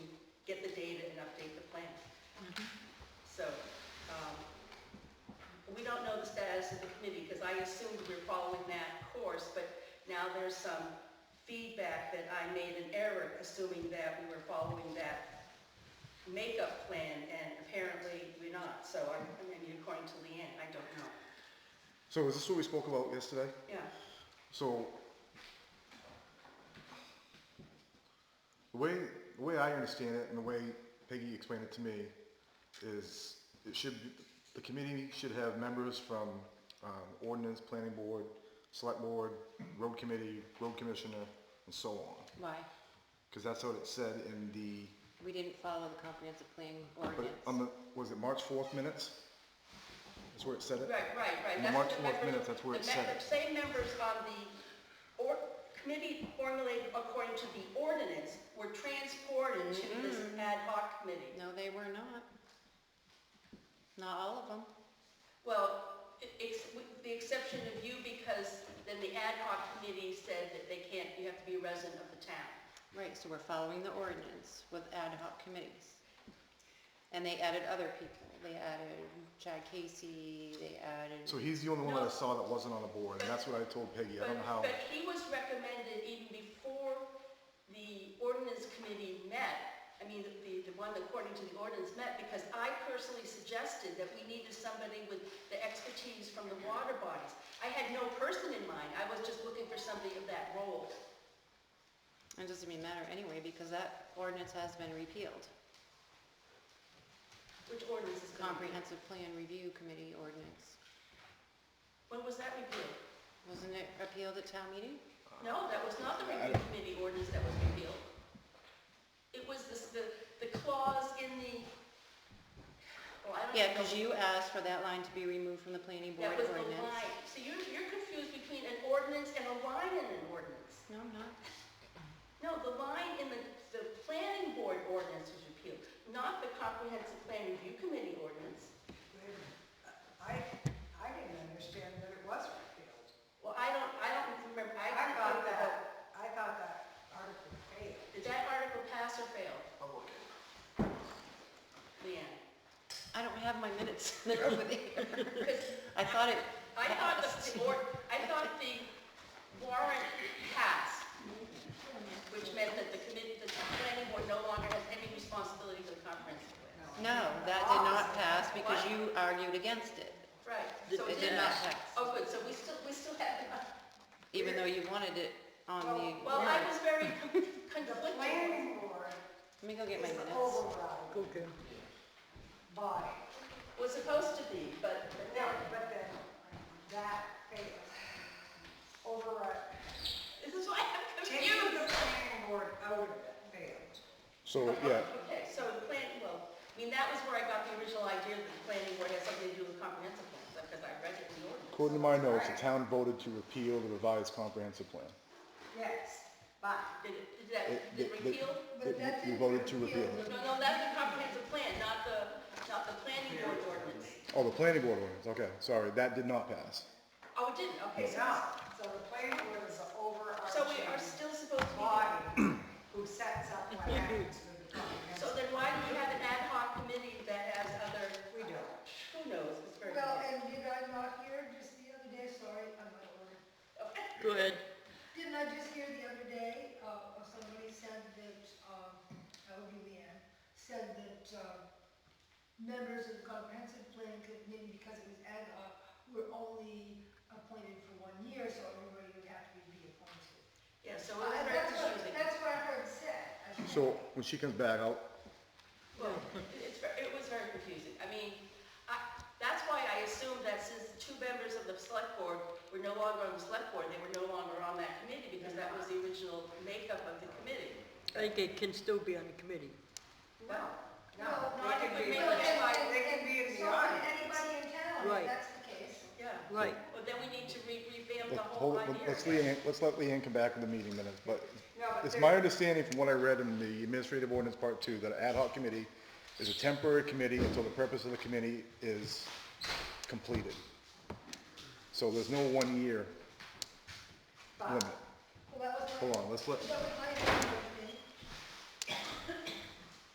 um, as a committee, because I assumed we were following that course, but now there's some feedback that I made an error, assuming that we were following that makeup plan, and apparently we're not, so I, I mean, according to Leanne, I don't know. So is this what we spoke about yesterday? Yeah, So the way the way I understand it and the way Peggy explained it to me is it should be, the committee should have members from um, ordinance, planning board, select board, road committee, road commissioner, and so on. Why? Because that's what it said in the We didn't follow the comprehensive plan but ordinance. it- on the was it March fourth minutes? That's where it said it. right, right, right. In That's March what the 4th members- minutes, that's where the it me- said The it. same members on the, or, committee formulated according to the ordinance were transported to this ad hoc committee. No, they were not. Not all of them. Well, e- ex- with the exception of you, because then the ad hoc committee said that they can't, you have to be a resident of the town. Right, so we're following the ordinance with ad hoc committees. And they added other people. They added Chad Casey, they added, So he's the only one that No. I saw that wasn't on the board, and that's what I told Peggy. I But, don't know how. but he was recommended even before the ordinance committee met, I mean, the, the one according to the ordinance met, because I personally suggested that we needed somebody with the expertise from the water bodies. I had no person in mind, I was just looking for somebody of that role. it doesn't even matter anyway because that ordinance has been repealed. Which ordinance is gonna be? Comprehensive Plan Review Committee ordinance. When was that repealed? Wasn't it appealed at town meeting? Uh, No, that was not the review committee ordinance that was repealed. It was this, the, the clause in the, well, I don't know. Yeah, because you asked for that line to be removed from the planning board That was ordinance. the line. So you're, you're confused between an ordinance and a line in an ordinance. No, I'm not. No, the line in the, the planning board ordinance was repealed, not the comprehensive plan review committee ordinance. Wait a minute. I, I didn't understand that it was repealed. Well, I don't, I don't remember, I I forgot thought that, that. I thought that article failed. Did that article pass or fail? Leanne? I don't have my minutes over there. 'Cause I thought it I thought the, passed. the or, I thought the warrant passed, which meant that the committee, the planning board no longer has any responsibility for the comprehensive plan. No, that did not pass because you argued against it, Right. It- So it did not pass. Oh, good, so we still, we still have, even though you wanted it on the well, I warrant. was very The conflicted. planning board Let me go get my is the minutes. override body. Was supposed to be, but, but No, now, but then that failed. Override, this is why I'm taking confused. the planning board out of it failed. So Oh, yeah, Okay, so the plan, well, I mean, that was where I got the original idea that the planning board has something to do with comprehensive plan, because I read it in the ordinance. According to my notes, the town voted to repeal the revised comprehensive plan. Yes, but. Did it, did that, It- did they- they- repeal? they- We voted to repeal it. No, no, that's the comprehensive plan, not the, not the planning board ordinance. Oh, the planning board ordinance, okay, sorry, that did not pass. Oh, it didn't, okay, It's so, not, so the planning board is the so we are overarching still supposed to be, body who sets up what happens with the so comprehensive. then why do we have an ad hoc committee that has other, We don't. who knows, it's very. Well, and did I not hear just the other day, sorry, I'm out of order. Go ahead. Didn't I just hear the other day, uh, of somebody said that, um, that would be Leanne, said that, um, members of the comprehensive plan committee, because it was ad hoc, were only appointed for one year, so everybody would have to be appointed. Yeah, so Uh, it's very That's what, confusing. that's what I heard said. I think. So when she comes back, I'll, Well, it's, ver- it was very confusing. I mean, I, that's why I assumed that since two members of the select board were no longer on the select board, they were no longer on that committee because that was the original makeup of the committee. I think it can still be on the committee. No, no. No, I think we made They can it be- by- They can be in the So can audience. anybody in town, if Right. that's the case. Yeah. Right. But then we need to re- revamp let- the whole hold, idea. let's Leanne, let's let Leanne come back with the meeting minutes, but No, but it's there- my understanding from what I read in the administrative ordinance part two, that an ad hoc committee is a temporary committee until the purpose of the committee is completed. So there's no one-year limit. Well, that was my. Hold on, let's let, That was my opinion.